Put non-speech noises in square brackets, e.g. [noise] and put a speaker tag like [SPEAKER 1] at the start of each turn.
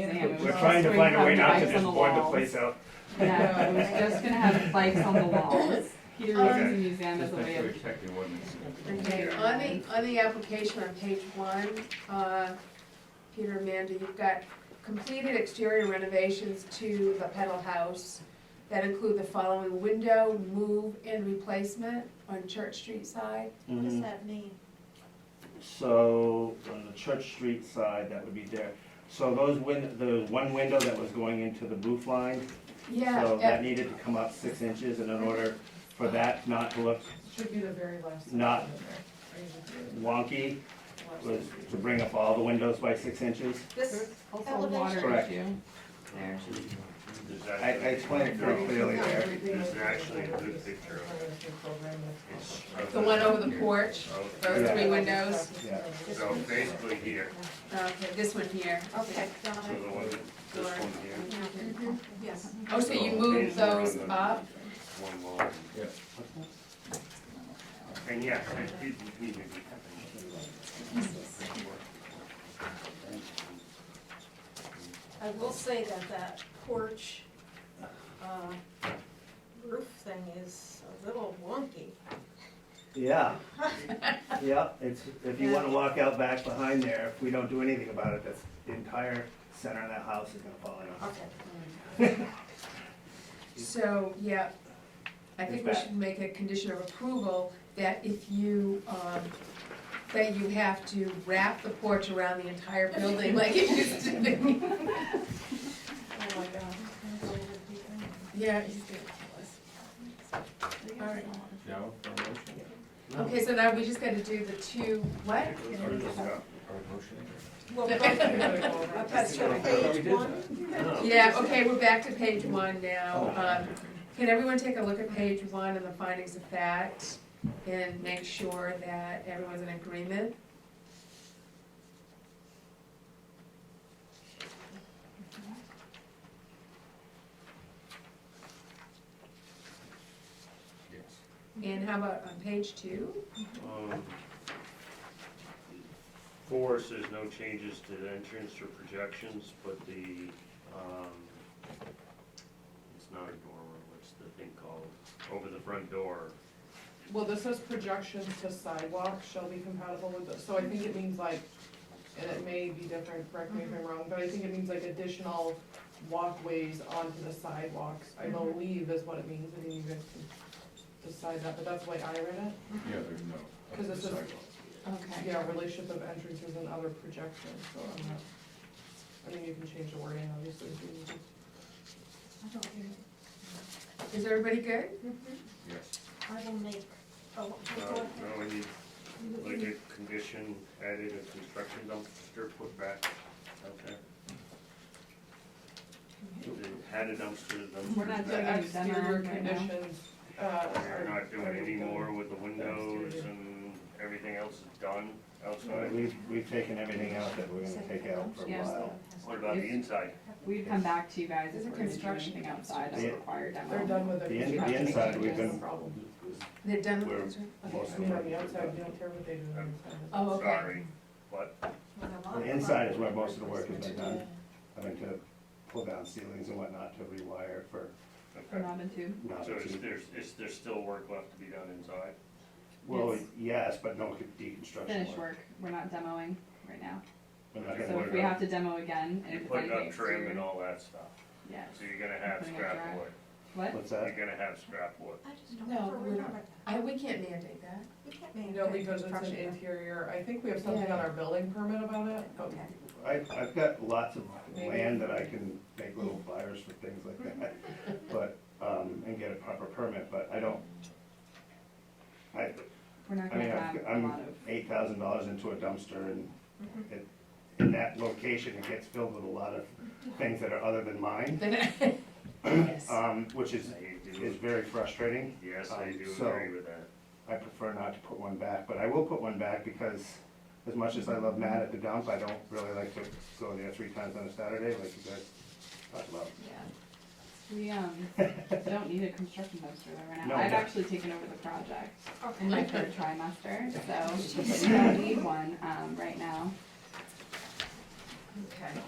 [SPEAKER 1] museum.
[SPEAKER 2] We're trying to find a way not to
[SPEAKER 1] It was
[SPEAKER 2] just
[SPEAKER 1] all
[SPEAKER 2] board the
[SPEAKER 1] spray
[SPEAKER 2] place out.
[SPEAKER 1] paint on the walls. No, it was just gonna have spikes on the walls. Peter
[SPEAKER 3] Okay.
[SPEAKER 1] runs the museum as
[SPEAKER 4] Just
[SPEAKER 1] a
[SPEAKER 4] make
[SPEAKER 1] way
[SPEAKER 4] sure we
[SPEAKER 1] of.
[SPEAKER 4] check the ordinance.
[SPEAKER 3] Okay, on the, on the application on page one, uh, Peter and Amanda, you've got completed exterior renovations to the Peddle House that include the following window, move, and replacement on Church Street side.
[SPEAKER 5] What does
[SPEAKER 2] Mhm.
[SPEAKER 5] that mean?
[SPEAKER 2] So, on the Church Street side, that would be there. So those win, there was one window that was going into the roof line, so that
[SPEAKER 3] Yeah,
[SPEAKER 2] needed to come up six inches, and in order for that not to look
[SPEAKER 6] Should be the very last.
[SPEAKER 2] Not- wonky, was to bring up all the windows by six inches.
[SPEAKER 5] This
[SPEAKER 1] Also a
[SPEAKER 5] elevation,
[SPEAKER 1] water
[SPEAKER 2] Correct.
[SPEAKER 1] issue.
[SPEAKER 5] there.
[SPEAKER 7] There's
[SPEAKER 2] I, I explained it pretty clearly there.
[SPEAKER 7] Is there actually a good picture of it? It's-
[SPEAKER 3] the one over the porch, those three
[SPEAKER 2] Yeah.
[SPEAKER 3] windows,
[SPEAKER 7] So basically here,
[SPEAKER 3] okay, this one here.
[SPEAKER 5] Okay, got
[SPEAKER 7] so the
[SPEAKER 5] it.
[SPEAKER 7] one, this one here,
[SPEAKER 3] Mhm.
[SPEAKER 5] Yes.
[SPEAKER 3] Oh, so you moved those up?
[SPEAKER 7] one wall.
[SPEAKER 4] Yeah.
[SPEAKER 7] And yes, it did need to be
[SPEAKER 5] I will say that that porch, uh, roof thing is a little wonky.
[SPEAKER 2] Yeah, yep, it's, if you wanna walk out back behind there, if we don't do anything about it, that's, the entire center of that house is gonna fall in.
[SPEAKER 5] Okay.
[SPEAKER 3] So, yeah, I
[SPEAKER 2] Is
[SPEAKER 3] think we
[SPEAKER 2] that-
[SPEAKER 3] should make a condition of approval that if you, um, that you have to wrap the porch around the [laughs] entire building like it used to be.
[SPEAKER 5] Oh, my God.
[SPEAKER 3] Yeah, he's gonna kill us. All right,
[SPEAKER 4] No, no motion?
[SPEAKER 3] okay, so now we just gotta do the two, what?
[SPEAKER 4] Or
[SPEAKER 5] [laughs]
[SPEAKER 4] motion?
[SPEAKER 5] Well, but that's your page one.
[SPEAKER 3] Yeah, okay, we're back to page one now.
[SPEAKER 2] Oh.
[SPEAKER 3] Um, Can everyone take a look at page one and the findings of fact and make sure that everyone's in agreement?
[SPEAKER 4] Yes.
[SPEAKER 3] And how about on page two?
[SPEAKER 7] Um, Four says no changes to the entrance or projections, but the, um, it's not a door, what's the thing called, over the front door.
[SPEAKER 6] Well, this says projections to sidewalk shall be compatible with, the- so I think it means like, and it may be different, correct me if
[SPEAKER 3] Mm-hmm.
[SPEAKER 6] I'm wrong, but I think it means like additional walkways onto the sidewalks, I
[SPEAKER 3] Mm-hmm.
[SPEAKER 6] believe is what it means, I think you guys can decide that, but that's why I read
[SPEAKER 4] Yeah, there's no.
[SPEAKER 6] 'Cause it's a- it.
[SPEAKER 3] Okay.
[SPEAKER 6] Yeah, relationship of entrances and other projections, so I'm not, I mean, you can change the wording, obviously, if you need to.
[SPEAKER 3] Is everybody good?
[SPEAKER 4] Yes.
[SPEAKER 5] Mm-hmm. I will make, oh, go
[SPEAKER 7] Uh, No, we need, like a condition added, a construction dumpster put back out there. They Had a dumpster, the dumpster's
[SPEAKER 1] We're not
[SPEAKER 7] back.
[SPEAKER 1] doing
[SPEAKER 6] The
[SPEAKER 1] any demo
[SPEAKER 6] exterior
[SPEAKER 1] right now.
[SPEAKER 6] conditions, uh.
[SPEAKER 7] They're not doing
[SPEAKER 6] are-
[SPEAKER 7] any more with the
[SPEAKER 6] Dumpster,
[SPEAKER 7] windows
[SPEAKER 6] yeah.
[SPEAKER 7] and everything else is done outside.
[SPEAKER 2] We've, we've taken everything out that we're gonna take out for a
[SPEAKER 1] Yeah.
[SPEAKER 2] while.
[SPEAKER 7] What about the inside?
[SPEAKER 1] We'd come back to you guys
[SPEAKER 3] Is
[SPEAKER 1] if
[SPEAKER 3] it
[SPEAKER 1] we're gonna do
[SPEAKER 3] construction?
[SPEAKER 1] anything outside of
[SPEAKER 2] Yeah.
[SPEAKER 1] required
[SPEAKER 6] They're
[SPEAKER 1] demo.
[SPEAKER 6] done with it.
[SPEAKER 2] The in- the inside we've been-
[SPEAKER 6] Problem.
[SPEAKER 3] They're done
[SPEAKER 7] Where-
[SPEAKER 3] with it?
[SPEAKER 6] Okay, I mean, on the outside, we don't care what they do on the inside.
[SPEAKER 3] Oh, okay.
[SPEAKER 7] Sorry, but
[SPEAKER 2] The inside is where most of the work has been done, having to pull down ceilings and whatnot to rewire for
[SPEAKER 7] Okay,
[SPEAKER 1] Robin too.
[SPEAKER 2] not
[SPEAKER 7] so
[SPEAKER 2] to
[SPEAKER 7] is
[SPEAKER 2] keep.
[SPEAKER 7] there, is there still work left to be done inside?
[SPEAKER 2] Well, yes, but no deconstruction
[SPEAKER 1] Finish
[SPEAKER 2] work.
[SPEAKER 1] work. We're not demoing right now.
[SPEAKER 2] We're not
[SPEAKER 7] Okay.
[SPEAKER 1] So
[SPEAKER 2] gonna
[SPEAKER 1] if we have to demo again, and
[SPEAKER 7] You
[SPEAKER 1] if it's
[SPEAKER 7] put
[SPEAKER 1] anything
[SPEAKER 7] up trim and
[SPEAKER 1] exterior.
[SPEAKER 7] all that stuff,
[SPEAKER 1] Yeah.
[SPEAKER 7] so you're gonna have
[SPEAKER 1] Putting up
[SPEAKER 7] scrap
[SPEAKER 1] drywall.
[SPEAKER 7] wood,
[SPEAKER 1] What?
[SPEAKER 2] What's
[SPEAKER 7] you're
[SPEAKER 2] that?
[SPEAKER 7] gonna have scrap wood.
[SPEAKER 5] I just don't
[SPEAKER 3] No,
[SPEAKER 5] ever
[SPEAKER 3] we're not.
[SPEAKER 5] remember that.
[SPEAKER 3] I, we can't mandate
[SPEAKER 2] [laughs]
[SPEAKER 3] that.
[SPEAKER 5] We can't
[SPEAKER 6] You
[SPEAKER 5] make
[SPEAKER 6] know,
[SPEAKER 5] that
[SPEAKER 6] because it's an
[SPEAKER 5] construction.
[SPEAKER 6] interior, I think we have something on our building permit about it, but
[SPEAKER 2] I, I've got lots of land that I can make little fires for things like that,
[SPEAKER 1] [laughs]
[SPEAKER 2] but, um, and get a proper permit, but I don't. I,
[SPEAKER 1] We're not
[SPEAKER 2] I
[SPEAKER 1] gonna
[SPEAKER 2] mean,
[SPEAKER 1] have
[SPEAKER 2] I've-
[SPEAKER 1] a lot
[SPEAKER 2] I'm
[SPEAKER 1] of. Mm-hmm.
[SPEAKER 2] eight thousand dollars into a dumpster and it, in that location, it gets filled with a lot of things that are other than mine,
[SPEAKER 3] Then- Yes.
[SPEAKER 2] um, which is,
[SPEAKER 7] I
[SPEAKER 2] is
[SPEAKER 7] do,
[SPEAKER 2] very frustrating.
[SPEAKER 7] yes, I
[SPEAKER 2] um,
[SPEAKER 7] do
[SPEAKER 2] so-
[SPEAKER 7] agree with that.
[SPEAKER 2] I prefer not to put one back, but I will put one back because as much as I love Matt at the dump, I don't really like to go there three times on a Saturday like you guys talk about.
[SPEAKER 1] Yeah. We, um, don't need a construction dumpster there right
[SPEAKER 2] No,
[SPEAKER 1] now. I've
[SPEAKER 2] no.
[SPEAKER 1] actually taken over the project in my
[SPEAKER 5] Okay.
[SPEAKER 1] third trimester, [laughs] so we don't need one, um, right now.
[SPEAKER 3] Okay.